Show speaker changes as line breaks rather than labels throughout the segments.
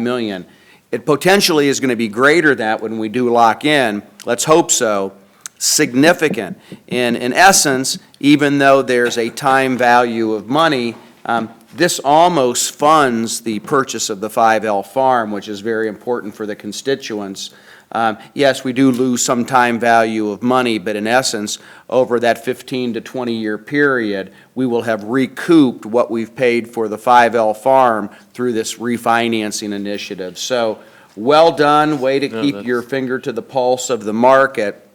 million. It potentially is going to be greater that when we do lock in, let's hope so, significant. And in essence, even though there's a time value of money, um, this almost funds the purchase of the 5L farm, which is very important for the constituents. Um, Yes, we do lose some time value of money, but in essence, over that 15 to 20-year period, we will have recouped what we've paid for the 5L farm through this refinancing initiative. So, well done, way to keep your finger to the pulse of the market.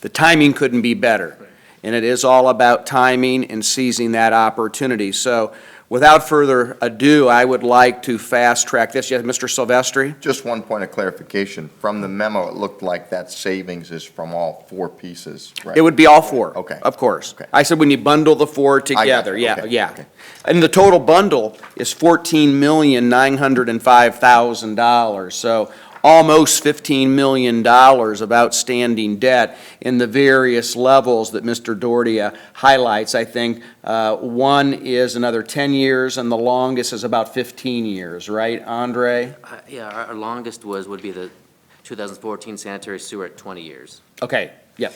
The timing couldn't be better, and it is all about timing and seizing that opportunity. So, without further ado, I would like to fast-track this. Yes, Mr. Silvestri?
Just one point of clarification. From the memo, it looked like that savings is from all four pieces, right?
It would be all four.
Okay.
Of course.
Okay.
I said when you bundle the four
got you.
together, yeah,
Okay,
yeah.
okay.
And the total bundle is fourteen million, nine hundred and five thousand dollars, so almost fifteen million dollars of outstanding debt in the various levels that Mr. Doherty uh, highlights. I think, uh, one is another ten years, and the longest is about fifteen years, right, Andre?
Uh, Yeah, our our longest was, would be the 2014 sanitary sewer at 20 years.
Okay, yeah.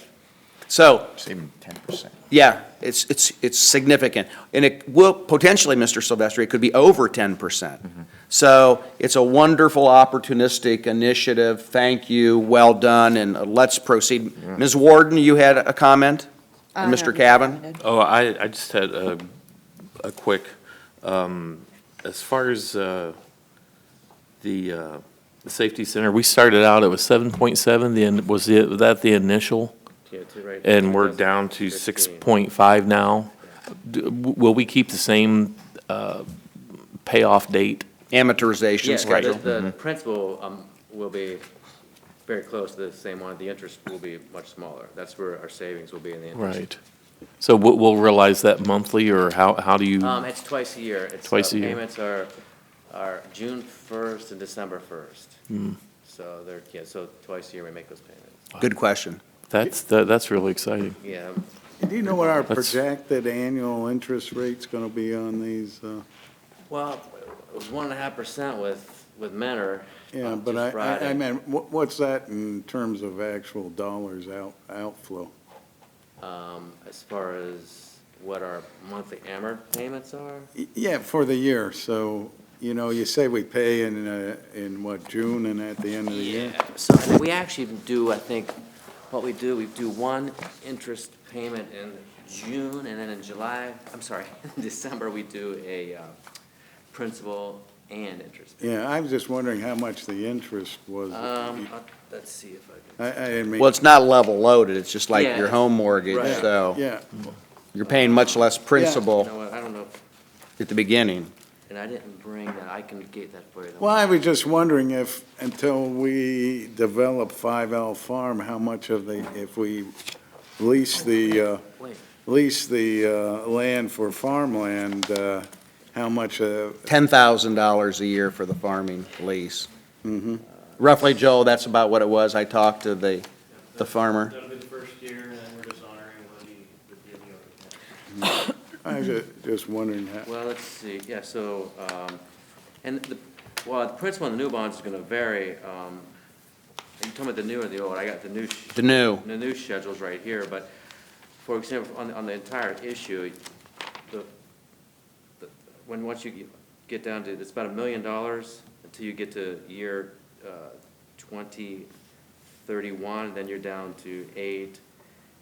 So,
Saving ten percent.
Yeah, it's, it's, it's significant. And it will, potentially, Mr. Silvestri, it could be over ten percent.
Mm-hmm.
So it's a wonderful opportunistic initiative. Thank you, well done, and uh, let's proceed. Ms. Warden, you had a comment? And Mr. Cavan?
Oh, I, I just had a, a quick, um, as far as, uh, the, uh, the safety center, we started out, it was seven point seven, the, in- was the, was that the initial? And we're down to six point five now. D- w- Will we keep the same, uh, payoff date?
Amortization
Yes,
schedule.
The
Mm-hmm.
principal um, will be very close to the same one, the interest will be much smaller. That's where our savings will be in the interest.
So we'll, we'll realize that monthly, or how, how do you,
Um, It's twice a year. It's, uh,
Twice a year.
Payments are, are June 1st and December
Hmm.
1st. So they're, yeah, so twice a year we make those payments.
Good question.
that's, that- that's really exciting.
Yeah,
Do you know what our
That's-
projected annual interest rate's going to be on these? uh,
well, it was one and a half percent with, with Mentor.
Yeah,
um,
but
just
I- I, I
Friday.
meant, wha- what's that in terms of actual dollars out, outflow?
um, as far as what our monthly AMR payments are.
Y- Yeah, for the year, so, you know, you say we pay in, uh, in what, June and at the end of the year?
So we actually do, I think, what we do, we do one interest payment in June, and then in July, I'm sorry, in December, we do a uh, principal and interest.
Yeah, I was just wondering how much the interest was.
Um,
I,
uh, let's see if I
I didn't mean.
Well, it's not level loaded, it's just like your
Yeah.
home mortgage,
Right.
so
Yeah,
you're paying much less
can, you
principal
know what, I don't know, if-
at the beginning.
and I didn't bring that, I can get that for you. though.
well, I was just wondering if, until we develop Five L Farm, how much of the, if we lease the, uh,
Wait,
lease the uh, land for farmland, uh, how much, uh,
ten thousand dollars a year for the farming lease.
mm-hmm.
Roughly, Joel, that's about what it was. I talked to the, the farmer.
That'll be the first year, and then we're just honoring what he would be in the other.
I was ju- just wondering how,
Well, let's see, yeah, so, um, and the, well, the principal on the new bonds is gonna vary, um, you told me the new or the old, I got the new, sh-
The new,
the new schedule's right here, but, for example, on, on the entire issue, the, the- when, once you get down to, it's about a million dollars until you get to year, uh, twenty thirty-one, then you're down to eight,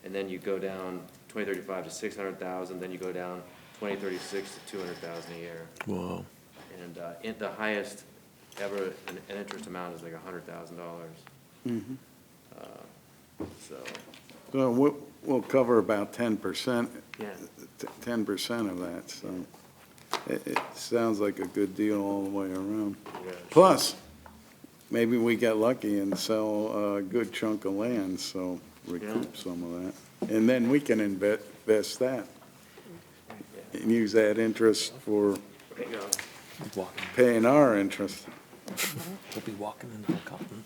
and then you go down twenty thirty-five to six hundred thousand, then you go down twenty thirty-six to two hundred thousand a year.
Whoa.
And, uh, in- the highest ever, an, an interest amount is like a hundred thousand dollars. Uh, So,
so we'll- we'll cover about 10%,
yeah,
t- 10% of that, so it it sounds like a good deal all the way around. Plus, maybe we get lucky and sell a good chunk of land, so recoup some of that. And then we can inve- invest that, and use that interest for
there you go.
paying our interest.
We'll be walking in Hillcotton.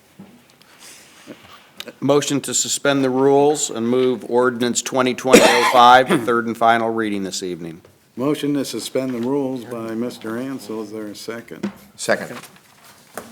motion to suspend the rules and move ordinance 2020-05 to third and final reading this evening.
Motion to suspend the rules by Mr. Ansel, is there a second?
Second.